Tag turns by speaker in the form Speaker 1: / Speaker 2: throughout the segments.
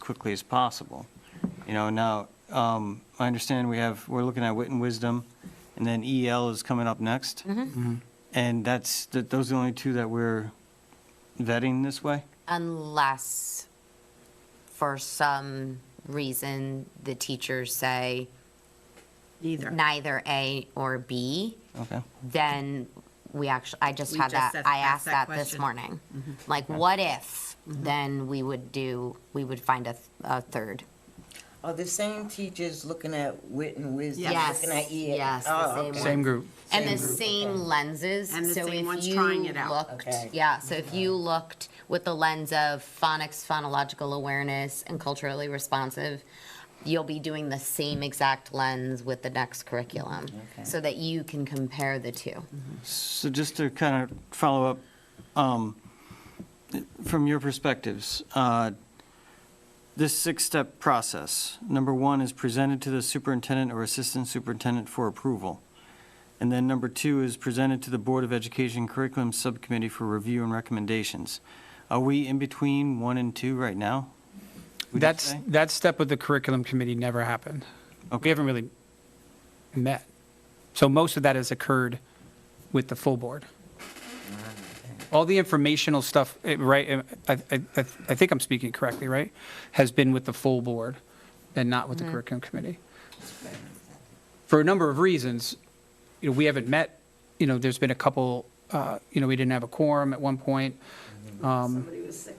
Speaker 1: quickly as possible. You know, now, um, I understand we have, we're looking at wit and wisdom, and then EL is coming up next. And that's, th- those are the only two that we're vetting this way?
Speaker 2: Unless, for some reason, the teachers say
Speaker 3: Neither.
Speaker 2: neither A or B,
Speaker 1: Okay.
Speaker 2: then we actually, I just
Speaker 3: We
Speaker 2: had
Speaker 3: just
Speaker 2: that,
Speaker 3: asked-
Speaker 2: I asked
Speaker 3: asked
Speaker 2: that
Speaker 3: that
Speaker 2: this
Speaker 3: question. Mm-hmm.
Speaker 2: morning. Like, what if, then we would do, we would find a, th- a third.
Speaker 4: Are the same teachers looking at wit and wisdom?
Speaker 2: Yes.
Speaker 4: Looking at EL?
Speaker 2: Yes, the
Speaker 4: Oh,
Speaker 2: same
Speaker 4: okay.
Speaker 2: one. Same
Speaker 5: group.
Speaker 2: And the
Speaker 4: group,
Speaker 2: same
Speaker 4: okay.
Speaker 2: lenses.
Speaker 3: And the
Speaker 2: so
Speaker 3: same
Speaker 2: if
Speaker 3: ones
Speaker 2: you
Speaker 3: trying it out.
Speaker 2: looked-
Speaker 4: Okay.
Speaker 2: Yeah, so if you looked with the lens of phonics, phonological awareness, and culturally responsive, you'll be doing the same exact lens with the next curriculum,
Speaker 4: Okay.
Speaker 2: so that you can compare the two.
Speaker 1: So just to kind of follow up, um, from your perspectives, uh, this six-step process, number one is presented to the superintendent or assistant superintendent for approval. And then number two is presented to the Board of Education Curriculum Subcommittee for review and recommendations. Are we in between one and two right now? would you
Speaker 5: That's,
Speaker 1: say?
Speaker 5: that step with the curriculum committee never happened.
Speaker 1: Okay.
Speaker 5: We haven't really met. So most of that has occurred with the full board. All the informational stuff, eh, right, eh, I, I, I I think I'm speaking correctly, right? Has been with the full board and not with the curriculum committee. For a number of reasons, you know, we haven't met, you know, there's been a couple, uh, you know, we didn't have a quorum at one point. Um,
Speaker 3: Somebody was sick.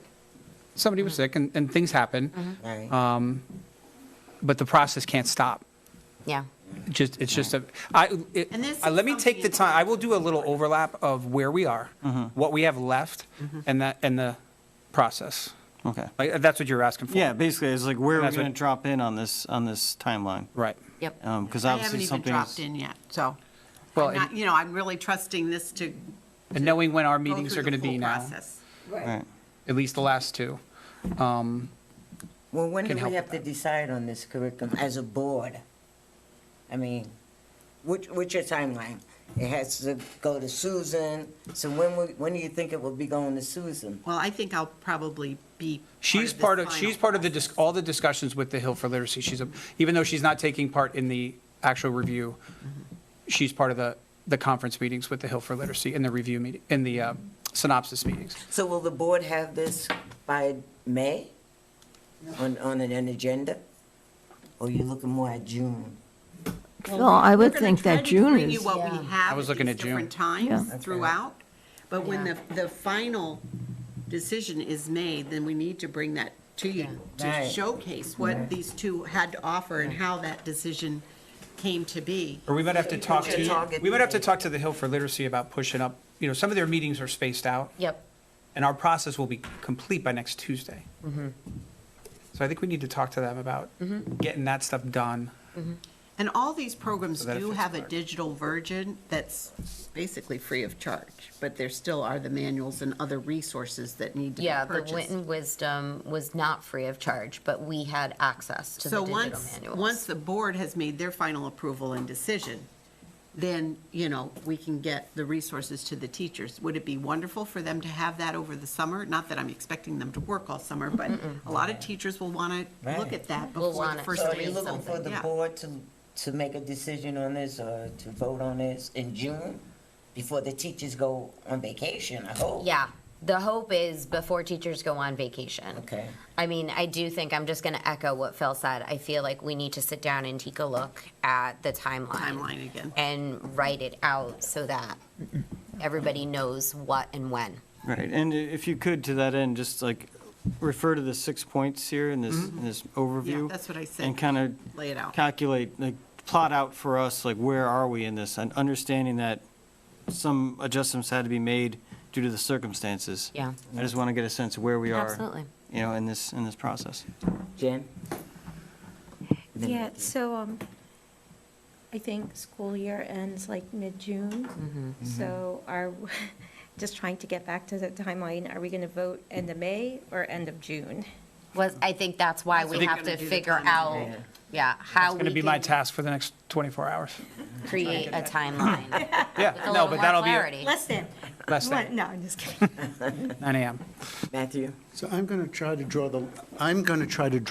Speaker 5: Somebody was sick and, and things happen,
Speaker 4: Right.
Speaker 5: Uh, but the process can't stop.
Speaker 2: Yeah.
Speaker 5: just, it's just a, I, it-
Speaker 3: And this
Speaker 5: I- let
Speaker 3: is
Speaker 5: me take the
Speaker 3: something-
Speaker 5: time, I will do a little overlap of where we are, what we have left,
Speaker 3: Mm-hmm.
Speaker 5: and that, and the process.
Speaker 1: Okay.
Speaker 5: Like, that's what you're asking for.
Speaker 1: Yeah, basically, it's like where are we
Speaker 5: That's what-
Speaker 1: going to drop in on this, on this timeline?
Speaker 5: Right.
Speaker 2: Yep.
Speaker 1: Because
Speaker 3: I haven't
Speaker 1: obviously
Speaker 3: even
Speaker 1: something
Speaker 3: dropped
Speaker 1: is.
Speaker 3: in yet, so.
Speaker 5: Well,
Speaker 3: I'm not, you know, I'm really trusting this to.
Speaker 5: And knowing when our
Speaker 3: go
Speaker 5: meetings
Speaker 3: through
Speaker 5: are
Speaker 3: the
Speaker 5: gonna be
Speaker 3: full
Speaker 5: now,
Speaker 3: process.
Speaker 1: Right.
Speaker 5: at least the last two. Um,
Speaker 4: Well, when do
Speaker 5: can
Speaker 4: we
Speaker 5: help
Speaker 4: have to decide on this curriculum as a board? I mean, what, what's your timeline? It has to go to Susan, so when, will- when do you think it will be going to Susan?
Speaker 3: Well, I think I'll probably be.
Speaker 5: She's
Speaker 3: this
Speaker 5: part of,
Speaker 3: final
Speaker 5: she's part of the,
Speaker 3: process.
Speaker 5: dis- all the discussions with the Hill for Literacy, she's, a even though she's not taking part in the actual review,
Speaker 3: Mm-hmm.
Speaker 5: she's part of the, the conference meetings with the Hill for Literacy and the review meeting, and the uh, synopsis meetings.
Speaker 4: So will the board have this by May on, on an an agenda? Or you looking more at June?
Speaker 6: Well, I would
Speaker 3: We're gonna
Speaker 6: think
Speaker 3: try
Speaker 6: that
Speaker 3: to
Speaker 6: June
Speaker 3: bring you
Speaker 6: is-
Speaker 3: what we
Speaker 2: Yeah.
Speaker 3: have
Speaker 5: I was looking
Speaker 3: these
Speaker 5: at June.
Speaker 3: Different
Speaker 6: Yeah.
Speaker 3: times
Speaker 6: Okay.
Speaker 3: throughout, but when the, the final decision is made, then we need to bring that to you to
Speaker 4: Right.
Speaker 3: showcase what these two had to offer and how that decision came to be.
Speaker 5: Or we might have to talk
Speaker 4: should
Speaker 5: to,
Speaker 4: target
Speaker 5: we might have to
Speaker 4: the-
Speaker 5: talk to the Hill for Literacy about pushing up, you know, some of their meetings are spaced out,
Speaker 2: Yep.
Speaker 5: and our process will be complete by next Tuesday.
Speaker 2: Mm-hmm.
Speaker 5: So I think we need to talk to them about getting that stuff done.
Speaker 3: And all these programs
Speaker 5: So that
Speaker 3: do
Speaker 5: affects
Speaker 3: have a
Speaker 5: Clark.
Speaker 3: digital version that's basically free of charge, but there still are the manuals and other resources that need to be
Speaker 2: Yeah, the
Speaker 3: purchased.
Speaker 2: Witten Wisdom was not free of charge, but we had access to
Speaker 3: So
Speaker 2: the digital
Speaker 3: once,
Speaker 2: manuals.
Speaker 3: once the board has made their final approval and decision, then, you know, we can get the resources to the teachers. Would it be wonderful for them to have that over the summer? Not that I'm expecting them to work all summer, but a lot of teachers will want to look
Speaker 4: Right.
Speaker 3: at that
Speaker 2: Will
Speaker 3: before
Speaker 2: want
Speaker 3: the
Speaker 2: it.
Speaker 3: first
Speaker 4: So are
Speaker 3: day
Speaker 4: you
Speaker 3: of
Speaker 4: looking for
Speaker 3: something,
Speaker 4: the
Speaker 3: yeah.
Speaker 4: board to, to make a decision on this or to vote on this in June? Before the teachers go on vacation, I hope?
Speaker 2: Yeah, the hope is before teachers go on vacation.
Speaker 4: Okay.
Speaker 2: I mean, I do think, I'm just going to echo what Phil said. I feel like we need to sit down and take a look at the timeline.
Speaker 3: Timeline again.
Speaker 2: And write it out so that everybody knows what and when.
Speaker 1: Right, and i- if you could, to that end, just like refer to the six points here in this,
Speaker 2: Mm-hmm.
Speaker 1: in this overview.
Speaker 3: that's what I said.
Speaker 1: And kind of.
Speaker 3: Lay it out.
Speaker 1: Calculate, like, plot out for us, like, where are we in this? And understanding that some adjustments had to be made due to the circumstances.
Speaker 2: Yeah.
Speaker 1: I just want to get a sense of where we are.
Speaker 2: Absolutely.
Speaker 1: You know, in this, in this process.
Speaker 4: Jen? Then
Speaker 7: Yeah,
Speaker 4: Nikki.
Speaker 7: so, um, I think school year ends like mid-June. So are, just trying to get back to the timeline, are we gonna vote end of May or end of June?
Speaker 2: Was, I think that's why we
Speaker 3: what
Speaker 2: have
Speaker 3: we're
Speaker 2: to
Speaker 3: gonna do the
Speaker 2: figure
Speaker 3: timeline.
Speaker 2: out, yeah, how
Speaker 5: It's going to
Speaker 2: we
Speaker 5: be my
Speaker 2: can
Speaker 5: task for the next 24 hours.
Speaker 2: create a timeline.
Speaker 5: Yeah,
Speaker 2: A
Speaker 5: no,
Speaker 2: little
Speaker 5: but
Speaker 2: more
Speaker 5: that'll be
Speaker 2: clarity.
Speaker 7: Less than,
Speaker 5: less
Speaker 7: one-
Speaker 5: than
Speaker 7: no, I'm just kidding.
Speaker 5: 9 AM.
Speaker 4: Matthew?
Speaker 8: So I'm going to try to draw the, I'm going to try to draw